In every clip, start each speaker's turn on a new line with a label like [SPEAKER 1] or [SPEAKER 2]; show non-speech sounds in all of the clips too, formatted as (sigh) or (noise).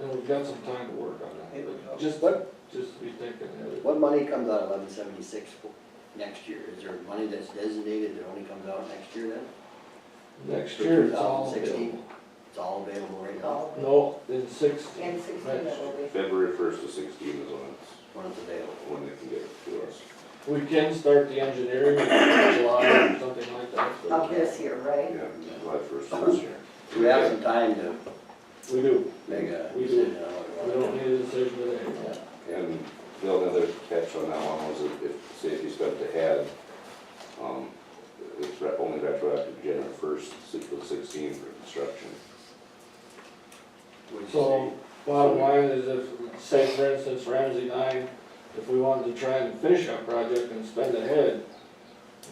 [SPEAKER 1] And we've got some time to work on that.
[SPEAKER 2] Here we go.
[SPEAKER 1] Just,
[SPEAKER 3] What,
[SPEAKER 1] just be thinking ahead.
[SPEAKER 3] what money comes out of eleven seventy-six next year? Is there money that's designated that only comes out next year then?
[SPEAKER 1] Next year, it's all
[SPEAKER 3] 2016?
[SPEAKER 1] available.
[SPEAKER 3] It's all available right now,
[SPEAKER 2] Oh,
[SPEAKER 1] No, in sixteen.
[SPEAKER 2] and sixteen it will be.
[SPEAKER 4] February first to sixteen is when it's,
[SPEAKER 3] when it's available.
[SPEAKER 4] when they can get it to us.
[SPEAKER 1] We can start the engineering in July or something like that.
[SPEAKER 2] Of this year, right?
[SPEAKER 4] Yeah, July first of this year.
[SPEAKER 3] Uh-huh. We have some time to
[SPEAKER 1] We do.
[SPEAKER 3] make a
[SPEAKER 1] We do.
[SPEAKER 3] decision on
[SPEAKER 1] We
[SPEAKER 3] what we
[SPEAKER 1] don't
[SPEAKER 3] want.
[SPEAKER 1] need a decision today.
[SPEAKER 4] And Bill, another catch on that one was that if, say if you spent ahead, um, it's re- only retroactive January first, sixteen for construction.
[SPEAKER 3] What'd you
[SPEAKER 1] So bottom line is if, say for instance Ramsey nine, if we wanted to try and finish our project and spend ahead,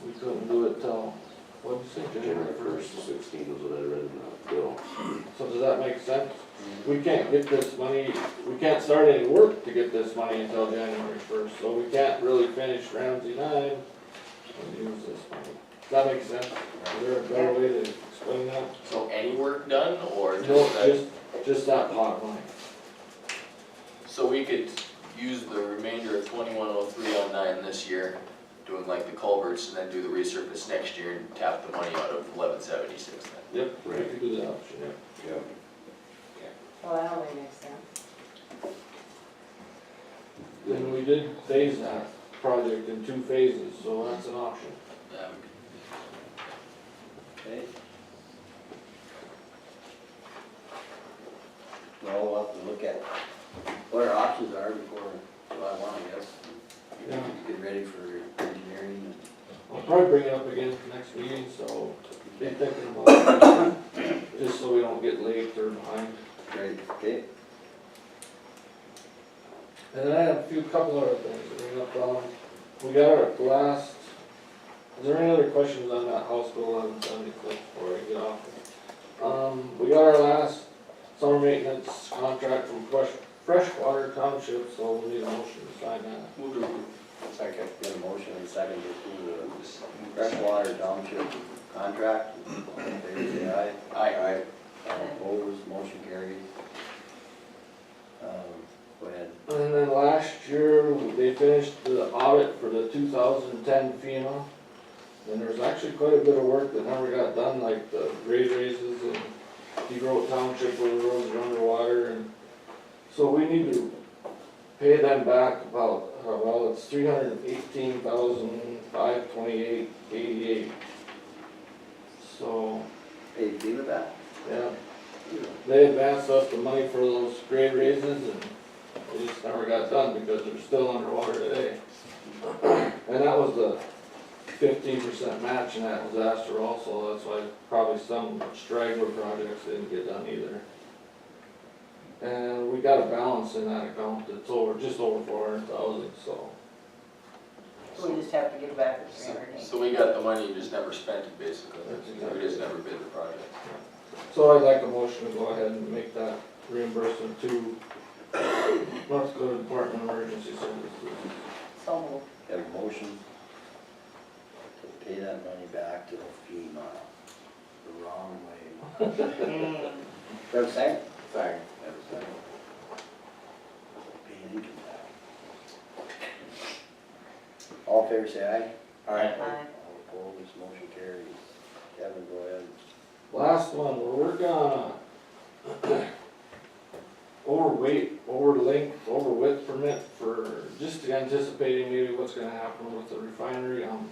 [SPEAKER 1] we couldn't do it till, what did you say,
[SPEAKER 4] January first to sixteen was what I read in that bill.
[SPEAKER 1] So does that make sense?
[SPEAKER 3] say?
[SPEAKER 1] We can't get this money, we can't start any work to get this money until January first, so we can't really finish Ramsey nine and use this money. Does that make sense? Is there a better way to explain that?
[SPEAKER 5] So any work done or
[SPEAKER 1] No,
[SPEAKER 5] just that?
[SPEAKER 1] just, just that pot line.
[SPEAKER 5] So we could use the remainder of twenty-one oh three oh nine this year, doing like the culverts and then do the resurface next year and tap the money out of eleven seventy-six then.
[SPEAKER 1] Yep, we
[SPEAKER 4] Right.
[SPEAKER 1] could do that option, yeah.
[SPEAKER 4] Yeah.
[SPEAKER 2] Well, that only makes sense.
[SPEAKER 1] And we did phase that project in two phases, so that's an option.
[SPEAKER 5] That would be
[SPEAKER 3] Okay. Well, we'll have to look at what our options are before July one, I guess.
[SPEAKER 1] Yeah.
[SPEAKER 3] Get ready for engineering
[SPEAKER 1] I'll probably bring it up again next meeting, so be thinking about it, (coughs) just so we don't get late or behind.
[SPEAKER 3] and, great, okay?
[SPEAKER 1] And then I had a few couple other things to bring up, um, we got our last, is there any other questions on that House Bill eleven seventy-six before I get off? Um, we got our last summer maintenance contract from Fresh, Freshwater Township, so we need a motion to sign that.
[SPEAKER 5] Move to approve.
[SPEAKER 3] Second, get a motion and second to approve the freshwater township contract. All in favor, say aye. Aye. Aye. All opposed, motion carried. Um, Go ahead.
[SPEAKER 1] And then last year, they finished the audit for the two thousand and ten FEMA. And there's actually quite a bit of work that never got done, like the grade raises and Degro Township where the roads are underwater and. So we need to pay them back about, uh, well, it's three hundred and eighteen thousand five twenty-eight eighty-eight. So,
[SPEAKER 3] Hey, do you live that?
[SPEAKER 1] yeah, they advanced us the money for those grade raises and it just never got done because they're still underwater today. And that was the fifteen percent match and that was Astor also, that's why probably some straggler projects didn't get done either. And we got a balance in that account that's over, just over four hundred thousand, so.
[SPEAKER 2] So We just have to give back the three
[SPEAKER 5] So-
[SPEAKER 2] hundred and eighty.
[SPEAKER 5] So we got the money and just never spent it basically,
[SPEAKER 1] That's exactly-
[SPEAKER 5] we just never bid the project.
[SPEAKER 1] So I'd like a motion to go ahead and make that reimbursement to North Dakota Department of Emergency Services.
[SPEAKER 2] So moved.
[SPEAKER 3] Have a motion to pay that money back to FEMA the wrong way.
[SPEAKER 2] Mm.
[SPEAKER 3] Have a second?
[SPEAKER 4] Thanks.
[SPEAKER 3] Have a second. Pay income tax. All in favor, say aye.
[SPEAKER 2] Aye. Aye.
[SPEAKER 3] All opposed, motion carries. Kevin, go ahead.
[SPEAKER 1] Last one, we're working on a (clears throat) overweight, over length, over width permit for, just anticipating maybe what's gonna happen with the refinery, um.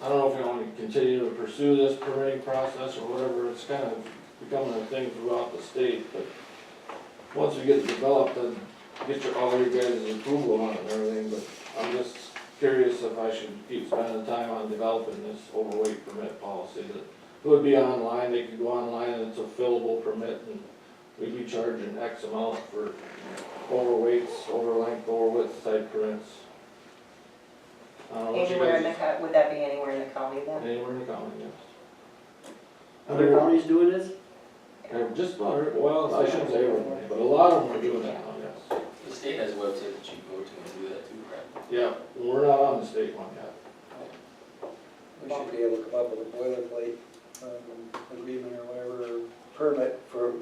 [SPEAKER 1] I don't know if we wanna continue to pursue this permitting process or whatever, it's kind of becoming a thing throughout the state, but once we get it developed, then get your, all your guys' approval on it and everything, but I'm just curious if I should keep spending time on developing this overweight permit policy that it would be online, they could go online and it's a fillable permit and we'd be charging X amount for overweights, over length, over width type permits. I don't know what you
[SPEAKER 2] Anywhere in the,
[SPEAKER 1] guys-
[SPEAKER 2] co- would that be anywhere in the county then?
[SPEAKER 1] Anywhere in the county, yes.
[SPEAKER 3] Other counties doing this?
[SPEAKER 1] Yeah, Just about, every- well, I shouldn't say everybody, but a lot of them are doing that now, yes.
[SPEAKER 5] The state has a website that you go to and do that too, right?
[SPEAKER 1] Yeah, we're not on the state one yet.
[SPEAKER 6] We should be able to come up with a boilerplate um, agreement or whatever, or permit for